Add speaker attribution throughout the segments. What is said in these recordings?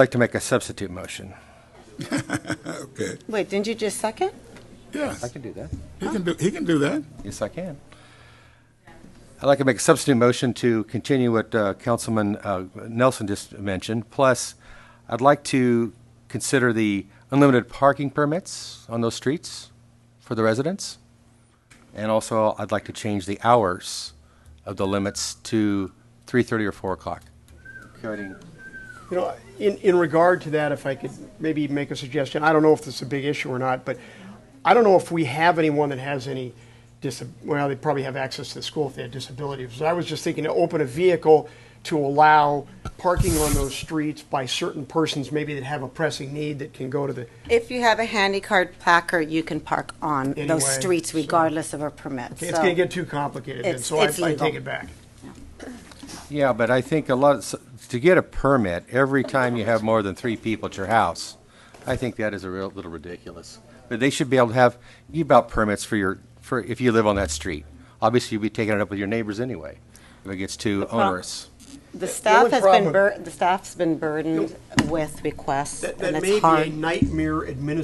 Speaker 1: like to make a substitute motion.
Speaker 2: Okay.
Speaker 3: Wait, didn't you just second?
Speaker 2: Yes.
Speaker 1: can do that.
Speaker 2: He can do, he can do that.
Speaker 1: Yes, I can. I'd like to make a substitute motion to continue what uh, Councilman uh, Nelson just mentioned. Plus, I'd like to consider the unlimited parking permits on those streets for the residents. And also, I'd like to change the hours of the limits to 3:30 or 4 o'clock. Coding.
Speaker 4: You know, in, in regard to that, if I could maybe make a suggestion, I don't know if this is a big issue or not, but I don't know if we have anyone that has any dis, well, they probably have access to the school if they had disabilities. So I was just thinking to open a vehicle to allow parking on those streets by certain persons, maybe that have a pressing need that can go to the,
Speaker 3: If you have a handicard placard, you can park on
Speaker 4: Anyway,
Speaker 3: those streets
Speaker 4: so-
Speaker 3: regardless of a permit.
Speaker 4: it's
Speaker 3: so-
Speaker 4: gonna get too complicated then,
Speaker 3: It's-
Speaker 4: so I,
Speaker 3: it's
Speaker 4: I
Speaker 3: legal.
Speaker 4: take it back.
Speaker 1: Yeah, but I think a lot, s- to get a permit, every time you have more than three people at your house, I think that is a real, little ridiculous. But they should be able to have e-belt permits for your, for, if you live on that street. Obviously, you'd be taking it up with your neighbors anyway, if it gets too
Speaker 3: prob-
Speaker 1: onerous.
Speaker 3: The staff
Speaker 4: only
Speaker 3: has
Speaker 4: problem-
Speaker 3: been, bur- the staff's been burdened with requests,
Speaker 4: That,
Speaker 3: and
Speaker 4: that may
Speaker 3: it's
Speaker 4: be a
Speaker 3: hard.
Speaker 4: nightmare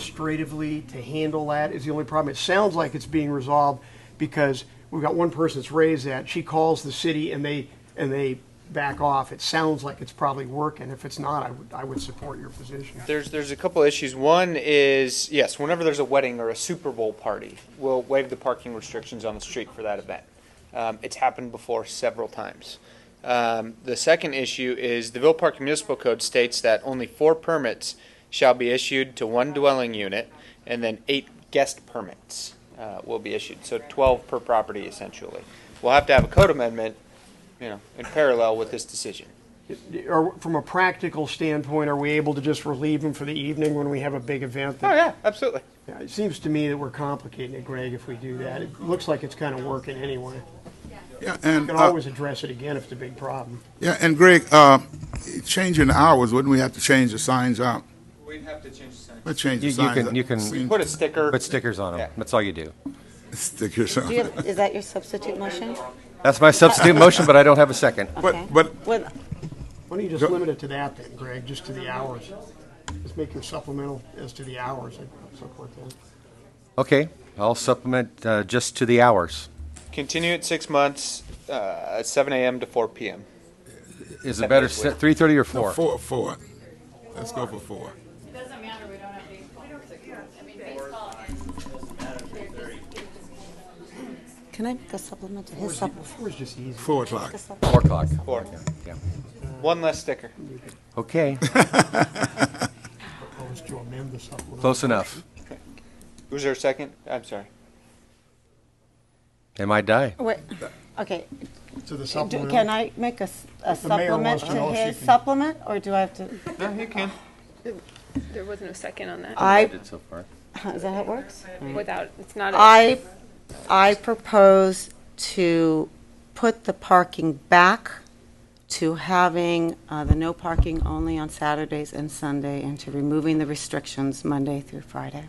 Speaker 4: administratively to handle that is the only problem. It sounds like it's being resolved because we've got one person that's raised that. She calls the city and they, and they back off. It sounds like it's probably working. If it's not, I would, I would support your position.
Speaker 5: There's there's a couple issues. One is yes, whenever there's a wedding or a Super Bowl party, we'll waive the parking restrictions on the street for that event. Um, it's happened before several times. Um, the second issue is the Ville Park Municipal Code states that only four permits shall be issued to one dwelling unit, and then eight guest permits uh, will be issued. So 12 per property essentially. We'll have to have a code amendment, you know, in parallel with this decision.
Speaker 4: Or from a practical standpoint, are we able to just relieve them for the evening when we have a big event? that-
Speaker 5: Oh yeah, absolutely.
Speaker 4: Yeah, It seems to me that we're complicating it, Greg, if we do that. It looks like it's kind of working anyway.
Speaker 2: Yeah, and,
Speaker 4: We can
Speaker 2: uh,
Speaker 4: always address it again if it's a big problem.
Speaker 2: yeah, and Greg, uh, changing the hours, wouldn't we have to change the signs out?
Speaker 5: We'd have to change the sign.
Speaker 2: Let's change
Speaker 1: You-
Speaker 2: the
Speaker 1: you
Speaker 2: signs.
Speaker 1: can-
Speaker 2: out.
Speaker 1: you can-
Speaker 2: Seen
Speaker 5: Put a sticker.
Speaker 1: Put stickers on them,
Speaker 5: Yeah.
Speaker 1: that's all you do.
Speaker 2: stickers on
Speaker 3: Do you
Speaker 2: it.
Speaker 3: have- Is that your substitute motion?
Speaker 1: That's my substitute motion, but I don't have a second.
Speaker 2: But,
Speaker 3: Okay.
Speaker 2: but,
Speaker 3: Well,
Speaker 4: Why don't you just
Speaker 2: Go-
Speaker 4: limit it to that then, Greg, just to the hours? Just make your supplemental as to the hours and support that.
Speaker 1: Okay, I'll supplement uh, just to the hours.
Speaker 5: Continue at six months, uh, at 7 a.m. to 4 p.m.
Speaker 1: Is it better,
Speaker 5: Separately.
Speaker 1: 3:30 or 4?
Speaker 2: four, four. Let's go for four.
Speaker 6: It doesn't matter, we don't have baseball. I mean, baseball and.
Speaker 3: can I make a supplement to his supplement?
Speaker 4: Four is just easy.
Speaker 2: Four o'clock.
Speaker 1: 4 o'clock.
Speaker 5: 4.
Speaker 1: Yeah.
Speaker 5: One less sticker.
Speaker 1: Okay,
Speaker 4: Propose to amend the supplemental.
Speaker 1: close enough.
Speaker 5: Who's there second? I'm sorry.
Speaker 1: They might die.
Speaker 3: Wait, okay,
Speaker 4: To the
Speaker 3: do-
Speaker 4: supplemental.
Speaker 3: can I make a s- a
Speaker 4: If the mayor
Speaker 3: supplement
Speaker 4: wants to
Speaker 3: to
Speaker 4: know, she
Speaker 3: his
Speaker 4: can-
Speaker 3: supplement, or do I have to?
Speaker 5: No, you can.
Speaker 6: There was no second on that.
Speaker 3: I,
Speaker 1: so far.
Speaker 3: is that how it works?
Speaker 6: Without, it's not. a-
Speaker 3: I, I propose to put the parking back to having uh, the no parking only on Saturdays and Sunday, and to removing the restrictions Monday through Friday.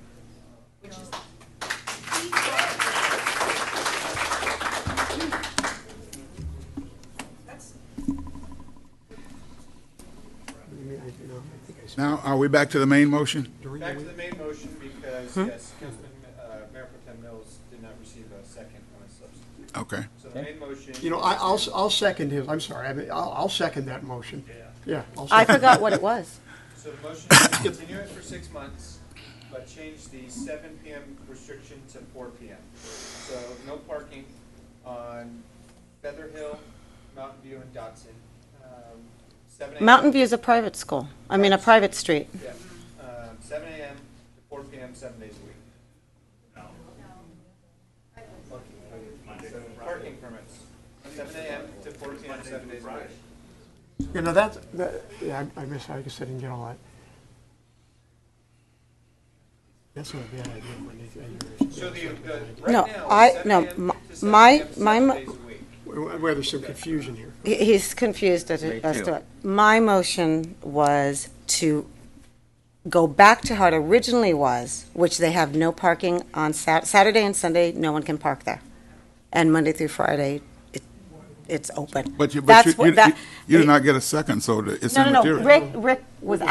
Speaker 4: You mean, I- you know, I think I said
Speaker 2: Now, are we back to the main motion?
Speaker 4: during the
Speaker 7: Back to
Speaker 4: week.
Speaker 7: the main motion because,
Speaker 5: Hmm?
Speaker 7: yes, Councilman, uh, Mayor Pro Tem Mills did not receive a second on his substitute.
Speaker 2: Okay.
Speaker 7: So the main motion.
Speaker 4: You know, I, I'll, s- I'll second his, I'm sorry, I mean, I'll, I'll second that motion. Yeah. I'll
Speaker 3: I
Speaker 4: second it.
Speaker 3: forgot what it was.
Speaker 7: So the motion is to continue it for six months, but change the seven PM restriction to four PM. So no parking on Feather Hill, Mountain View, and Dotson. Um, 7 a.m.
Speaker 3: Mountain View is a private school, I mean, a private street.
Speaker 7: Yeah, um, seven AM to four PM, seven days a week. Okay, so Parking permits, seven AM to four PM, seven days a week.
Speaker 4: You know, that's, that, yeah, I I miss, I guess I didn't get all that. That's not a bad idea. when they-
Speaker 7: So the, the,
Speaker 3: No,
Speaker 7: right now,
Speaker 3: I-
Speaker 7: seven
Speaker 3: no,
Speaker 7: AM
Speaker 3: m-
Speaker 7: to seven
Speaker 3: my-
Speaker 7: PM,
Speaker 3: my
Speaker 7: seven
Speaker 3: mo-
Speaker 7: days a week.
Speaker 4: Where where there's some confusion here.
Speaker 3: He- He's confused as
Speaker 1: Me
Speaker 3: as
Speaker 1: too.
Speaker 3: to it. My motion was to go back to how it originally was, which they have no parking on Sat- Saturday and Sunday, no one can park there. And Monday through Friday, it, it's open.
Speaker 2: But you, but
Speaker 3: That's
Speaker 2: you,
Speaker 3: what
Speaker 2: you,
Speaker 3: that-
Speaker 2: you did not get a second, so the- it's
Speaker 3: No, no, no,
Speaker 2: immaterial.
Speaker 3: Rick, Rick was